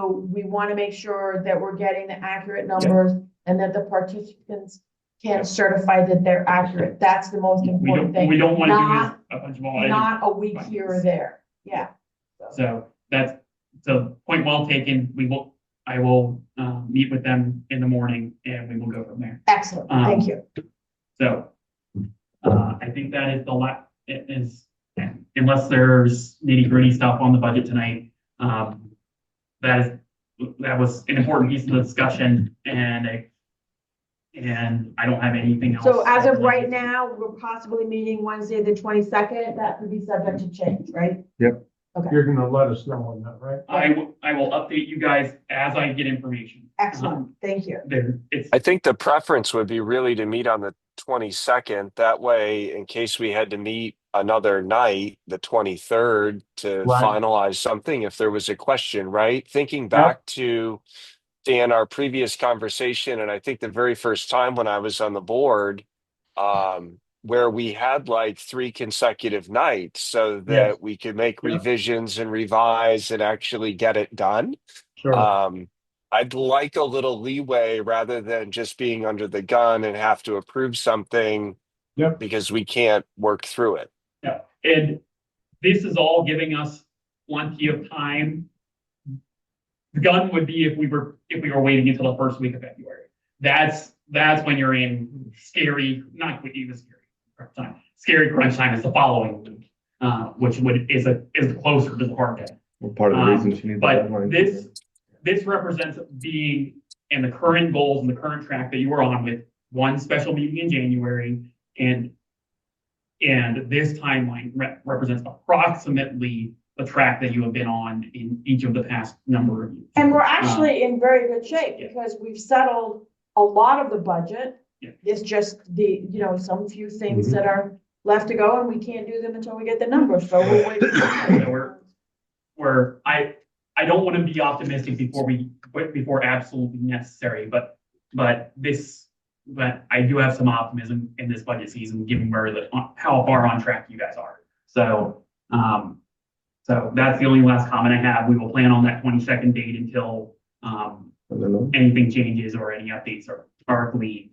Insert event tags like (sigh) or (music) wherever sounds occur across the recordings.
So we want to make sure that we're getting the accurate numbers and that the participants can certify that they're accurate. That's the most We important don't, we thing. don't want Not- to do this a bunch of all items. Not a week here or there. Yeah. So that's, so point well taken. We will, I will, um, meet with them in the morning and we will go from there. Excellent. Um, Thank you. So, uh, I think that is the la, it is, unless there's nitty gritty stuff on the budget tonight, um, that is, that was an important piece of the discussion and I, and I don't have anything else. So as of right now, we're possibly meeting Wednesday, the twenty-second. That could be subject to change, right? You're gonna let us know on that, right? I will, I will update you guys as I get information. Uh-huh. Excellent. Thank you. There, it's, I think the preference would be really to meet on the twenty-second. That way, in case we had to meet another night, the twenty-third, to Right. finalize something, if there was a question, right? Thinking back to Dan, our previous conversation, and I think the very first time when I was on the board, um, where we had like three consecutive nights so that we could make Yeah. revisions and revise and actually get it done. Sure. Um, I'd like a little leeway rather than just being under the gun and have to approve something. Yep. Because we can't work through it. and this is all giving us plenty of time. The gun would be if we were, if we were waiting until the first week of February. That's, that's when you're in scary, not quite even scary crunch time. Scary crunch time is the following week, uh, which would, is a, is closer to the hard deadline. Well, Part of the Um, reason she needs. but the deadline. this- this represents being in the current goals and the current track that you were on with one special meeting in January and and this timeline re- represents approximately the track that you have been on in each of the past number of years. And we're actually in very good shape Um, Yeah. because we've settled a lot of the budget. Yeah. Mm-hmm. It's just the, you know, some few things that are left to go and we can't do them until we get the numbers, so we'll wait. (coughs) Yeah, we're- Where I I don't want to be optimistic before we before absolutely necessary, but but this but I do have some optimism in this budget season, given where the how far on track you guys are. So um so that's the only last comment I have. We will plan on that twenty second date until um I don't know. anything changes or any updates are are gleaned.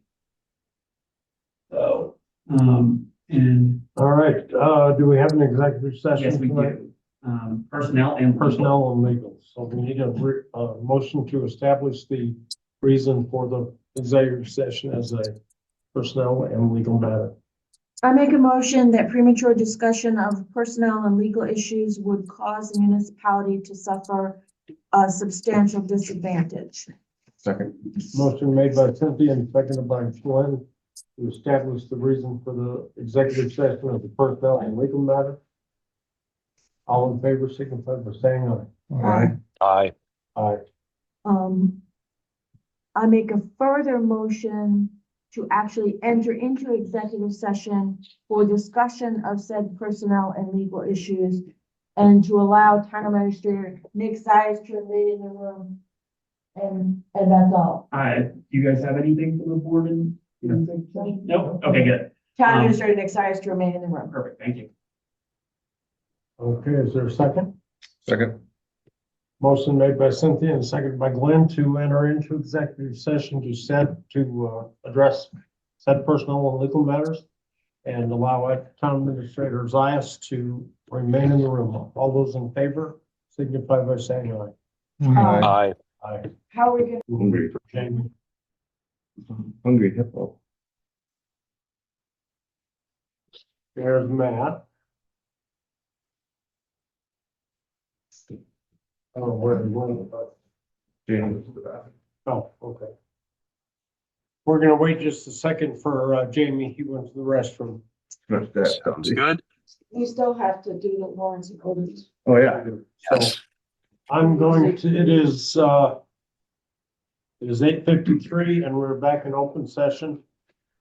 So um and All right, uh, do we have an executive session? yes, we tonight? do. Um personnel and Personnel and legal, so we need a, re- a motion to establish the reason for the executive session as a personnel and legal matter. I make a motion that premature discussion of personnel and legal issues would cause the municipality to suffer a substantial disadvantage. Second. Motion made by Cynthia and seconded by Glenn to establish the reason for the executive session of the personnel and legal matter. All in favor, signify by saying Aye. I, aye. Aye. Um, I make a further motion to actually enter into executive session for discussion of said personnel and legal issues and to allow town administrator Nick Zias to remain in the room. And, and that's all. Uh, do you guys have anything from the board and? No? Okay, good. Town administrator Nick Sias to remain in the room. Perfect. Thank you. Okay, is there a second? Second. Motion made by Cynthia and seconded by Glenn to enter into executive session to set, to, uh, address said personnel and legal matters and allow it- town administrator Zias to remain in the room. All those in favor signify by saying aye. Aye. I. Aye. How are we gonna Hungry. Jamie? Hungry hippo. There's Matt. I don't know where he went, but- James. Oh, okay. We're gonna wait just a second for uh, Jamie. He went to the restroom. Smash that. hungry. good. We still have to do the warrants and orders. Oh, yeah. Yes. I'm going to, it is, uh, it is eight fifty-three and we're back in open session.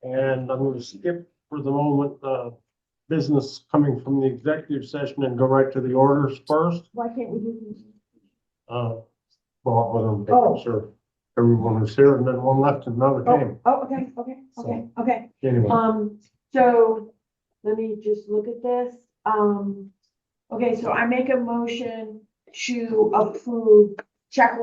And I'm gonna skip for the moment, uh, business coming from the executive session and go right to the orders first. Why can't we do? Uh, well, I'm sure everyone was here and then one left and another Oh, came. oh, okay, okay, okay, okay. Anyway, Um, so let me just look at this. Um, okay, so I make a motion to approve check